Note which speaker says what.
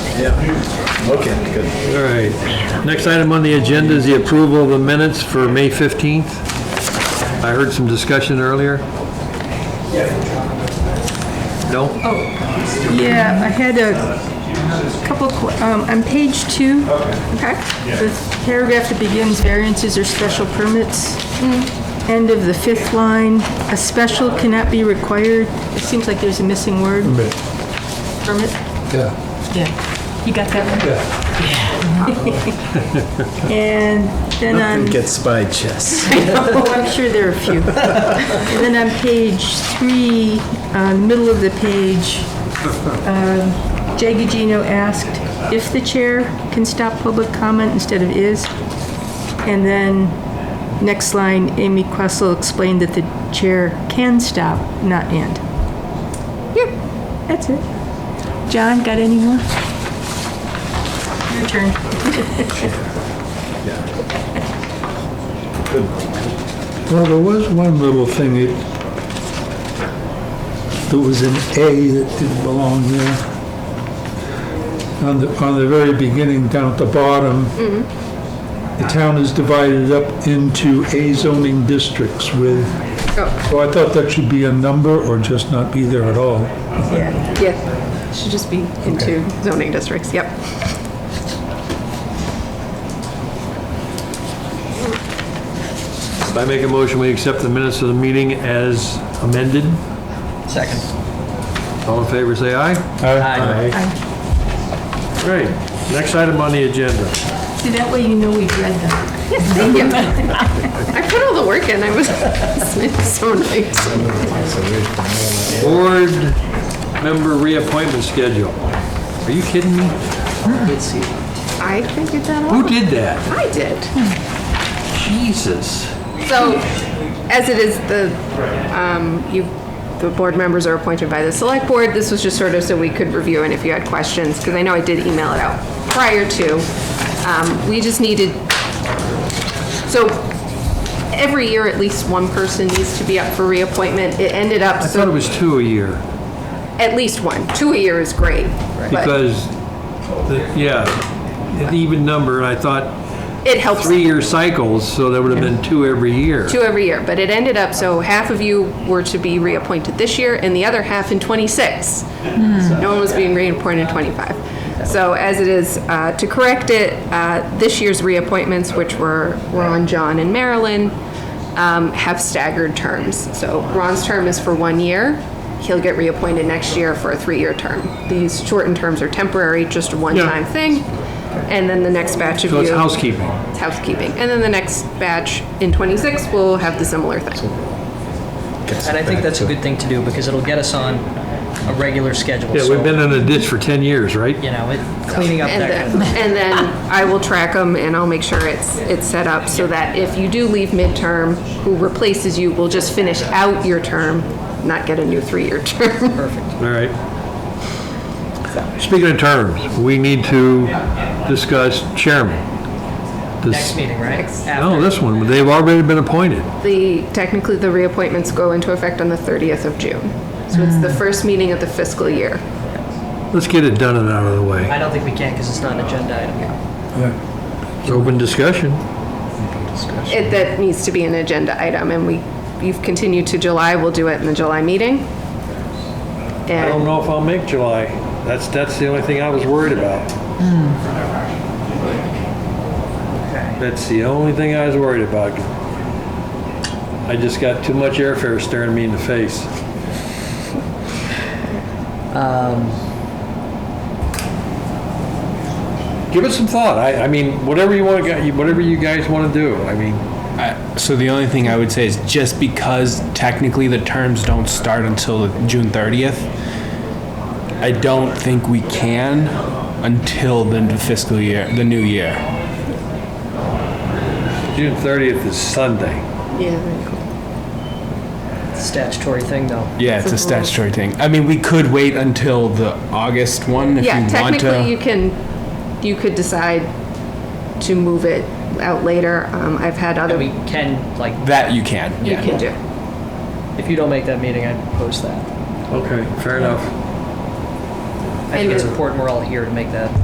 Speaker 1: Okay, good.
Speaker 2: All right. Next item on the agenda is the approval of the minutes for May 15th. I heard some discussion earlier. No?
Speaker 3: Yeah, I had a couple, que- um, on page two, okay, the paragraph that begins variances or special permits, end of the fifth line, a special cannot be required, it seems like there's a missing word. Permit?
Speaker 4: Yeah,
Speaker 3: Yeah. You got that one?
Speaker 4: yeah.
Speaker 3: And then on
Speaker 1: Gets by Jess.
Speaker 3: Oh, I'm sure there are a few. And then on page three, uh, middle of the page, um, Jay Gugino asked if the chair can stop public comment instead of is. And then, next line, Amy Questle explained that the chair can stop, not and. Yep, that's it. John, got any more? Your turn.
Speaker 4: Well, there was one little thing that, that was an A that didn't belong there. On the, on the very beginning, down at the bottom, the town is divided up into A zoning districts with,
Speaker 5: Oh.
Speaker 4: well, I thought that should be a number or just not be there at all.
Speaker 3: Yeah.
Speaker 5: Yeah, should just be into zoning districts, yep.
Speaker 2: I make a motion, we accept the minutes of the meeting as amended.
Speaker 6: Second.
Speaker 2: All in favor, say aye.
Speaker 6: Aye.
Speaker 2: Great. Next item on the agenda.
Speaker 3: See, that way you know we've read them.
Speaker 5: Thank you. I put all the work in, I was, it's so nice.
Speaker 2: Board member reappointment schedule. Are you kidding me?
Speaker 5: I figured that
Speaker 2: Who
Speaker 5: out.
Speaker 2: did that?
Speaker 5: I did.
Speaker 2: Jesus.
Speaker 5: So, as it is, the, um, you, the board members are appointed by the select board. This was just sort of so we could review and if you had questions, because I know I did email it out prior to. Um, we just needed, so every year, at least one person needs to be up for reappointment. It ended up,
Speaker 2: I thought it
Speaker 5: so,
Speaker 2: was two a year
Speaker 5: at least one. Two a year is great. But
Speaker 2: because, the- yeah, an even number. I thought
Speaker 5: it helps
Speaker 2: three-year cycles, so there would have been two every year.
Speaker 5: two every year. But it ended up, so half of you were to be reappointed this year and the other half in '26. No one was being reappointed in '25. So as it is, uh, to correct it, uh, this year's reappointments, which were Ron, John, and Marilyn, um, have staggered terms. So Ron's term is for one year. He'll get reappointed next year for a three-year term. These shortened terms are temporary, just a one-time thing. And then the next batch of
Speaker 2: So
Speaker 5: you.
Speaker 2: it's housekeeping.
Speaker 5: It's housekeeping. And then the next batch in 26 will have the similar thing.
Speaker 6: And I think that's a good thing to do because it'll get us on a regular schedule.
Speaker 2: Yeah, we've
Speaker 6: So,
Speaker 2: been in a ditch for 10 years, right?
Speaker 6: You know, it- cleaning up
Speaker 5: And
Speaker 6: that.
Speaker 5: then, and then I will track them and I'll make sure it's, it's set up so that if you do leave midterm, who replaces you will just finish out your term, not get a new three-year term.
Speaker 2: All right. Speaking of terms, we need to discuss chairman. This-
Speaker 6: Next meeting, right?
Speaker 2: No,
Speaker 6: After.
Speaker 2: this one, they've already been appointed.
Speaker 5: The, technically, the reappointments go into effect on the 30th of June. So it's the
Speaker 2: Mm.
Speaker 5: first meeting of the fiscal year.
Speaker 2: Let's get it done and out of the way.
Speaker 6: I don't think we can because it's not an agenda item.
Speaker 2: It's Open discussion.
Speaker 5: It, that needs to be an agenda item and we, you've continued to July, we'll do it in the July meeting.
Speaker 2: I
Speaker 5: And
Speaker 2: don't know if I'll make July. That's, that's the only thing I was worried about. That's the only thing I was worried about. I just got too much airfare staring me in the face. Give it some thought. I, I mean, whatever you want to, whatever you guys want to do. I mean,
Speaker 7: I- Uh, So the only thing I would say is just because technically the terms don't start until June 30th, I don't think we can until the fiscal year, the new year.
Speaker 2: June 30th is Sunday.
Speaker 6: Statutory thing though.
Speaker 7: Yeah, it's a statutory thing. I mean, we could wait until the August one if
Speaker 5: Yeah,
Speaker 7: you want
Speaker 5: technically, you
Speaker 7: to.
Speaker 5: can, you could decide to move it out later. Um, I've had
Speaker 6: And we
Speaker 5: other,
Speaker 6: can, like,
Speaker 7: That you can,
Speaker 5: you
Speaker 7: yeah.
Speaker 5: can do.
Speaker 6: if you don't make that meeting, I propose that.
Speaker 2: Okay, fair enough.
Speaker 6: I think it's
Speaker 5: And-
Speaker 6: important we're all here to make that